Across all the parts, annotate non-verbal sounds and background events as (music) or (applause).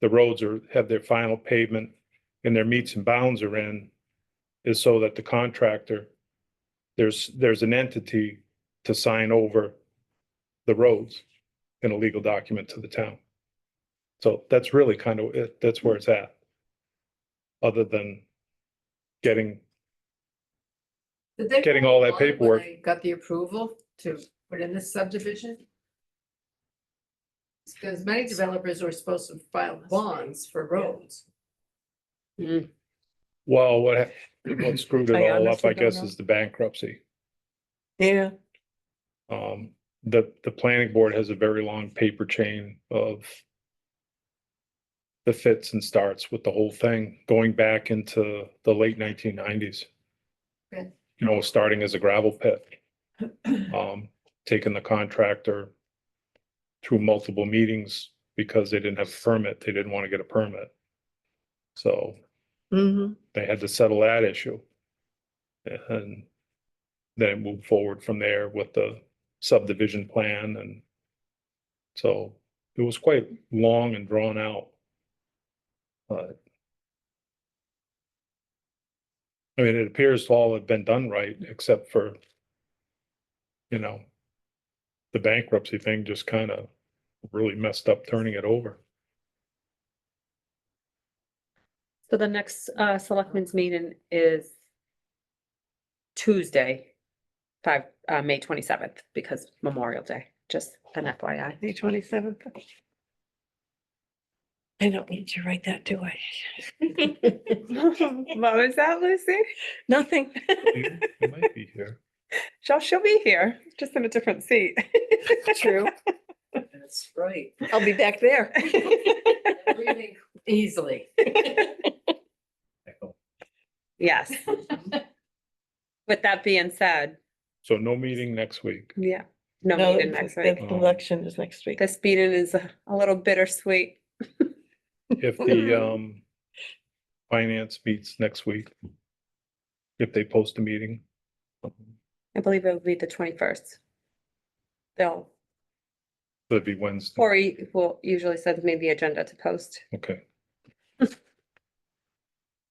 the roads are, have their final pavement and their meets and bounds are in is so that the contractor, there's, there's an entity to sign over the roads in a legal document to the town. So that's really kind of it. That's where it's at. Other than getting, Did they Getting vote all that on it when paperwork. they Got the approval to put in this subdivision? Because many developers were supposed to file bonds for roads. well, what, hap- what screwed it all I up, honestly I don't guess, know. is the bankruptcy. Yeah, Um, the, the planning board has a very long paper chain of the fits and starts with the whole thing, going back into the late nineteen nineties. Okay. You know, starting as a gravel pit. Um, taking the contractor through multiple meetings because they didn't have a permit, they didn't want to get a permit. So hmm they had to settle that issue. And then move forward from there with the subdivision plan and so it was quite long and drawn out. But I mean, it appears all have been done right, except for, you know, the bankruptcy thing just kind of really messed up turning it over. So the next uh selectmen's meeting is Tuesday, five, uh, May twenty-seventh, because Memorial Day, just an FYI. May twenty-seventh. I don't need to write that, do (laughs) I? What was Oh, that, Lucy? Nothing. You you might be here. She'll, she'll be here, just in a different (laughs) seat. True. That's right. I'll be back (laughs) there. Breathing Easily. (laughs) Yes. With that being said, So no meeting next week. yeah, no No, meeting it's- next the week. week. election is next week. This meeting is a a little bittersweet. If the um finance meets next week. If they post a meeting. I believe it will be the twenty-first. They'll, That'd be Wednesday, Corey will usually sends me the agenda to post. okay.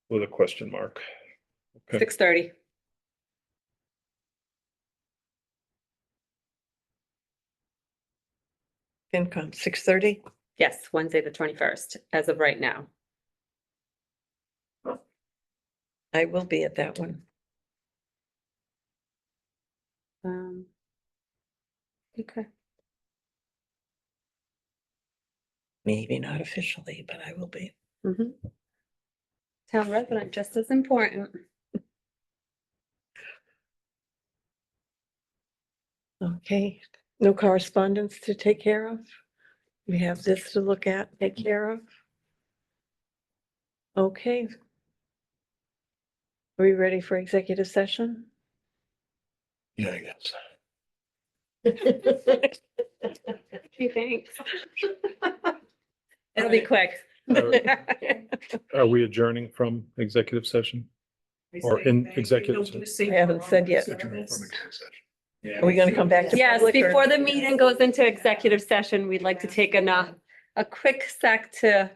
With a question mark. Okay. Six thirty. FinCom, six thirty. Yes, Wednesday, the twenty-first, as of right now. I will be at that one. Um. Okay, Maybe not officially, but I will be. mhm. Town resident, just as (laughs) important. Okay, no correspondence to take care of? We have this to look at, take care of? Okay. Are we ready for executive session? Yeah, I guess. Thanks. It'll be quick. (laughs) Are we adjourning from executive session? (laughs) Or in executive I haven't said yet. Are we gonna come back to? Yes, public or- before the meeting goes (laughs) into executive session, we'd like to take an, uh, a quick sec to,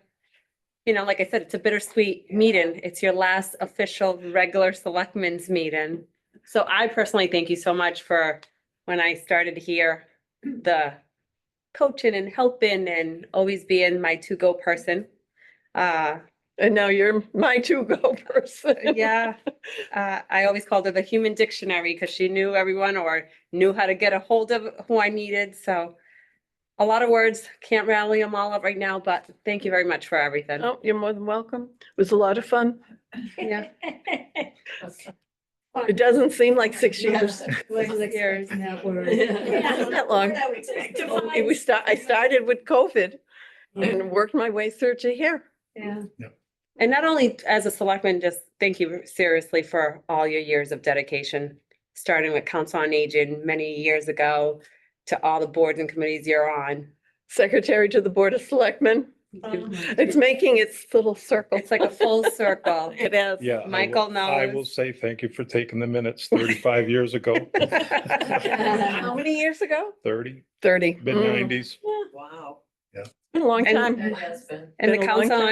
you know, like I said, it's a bittersweet meeting. It's your last official regular selectmen's meeting. So I personally thank you so much for, when I started here, the coaching and helping and always being my to-go person. Uh, And now you're my (laughs) to-go person. yeah, uh, I always called her the human dictionary because she knew everyone or knew how to get a hold of who I needed. So a lot of words, can't rally them all up right now, but thank you very much for everything. Oh, you're more than welcome. It was a lot of fun. Yeah. It doesn't seem like six (laughs) years. (laughs) Not that long. It was, sta- I started with COVID (laughs) and worked my way through to here. Yeah. Yeah. And not only as a selectman, just thank you seriously for all your years of dedication, starting with Council on Aging many years ago to all the boards and committees you're on. Secretary to the Board of Selectmen. It's making its little circle. It's like a (laughs) full circle. It is. Yeah. I will- Michael I will (laughs) (laughs) knows. say thank you for taking the minutes thirty-five years ago, How many years ago? thirty, Thirty. mid Mm. nineties. Wow. Been a long And- time. That has been. And the Been a long council time. on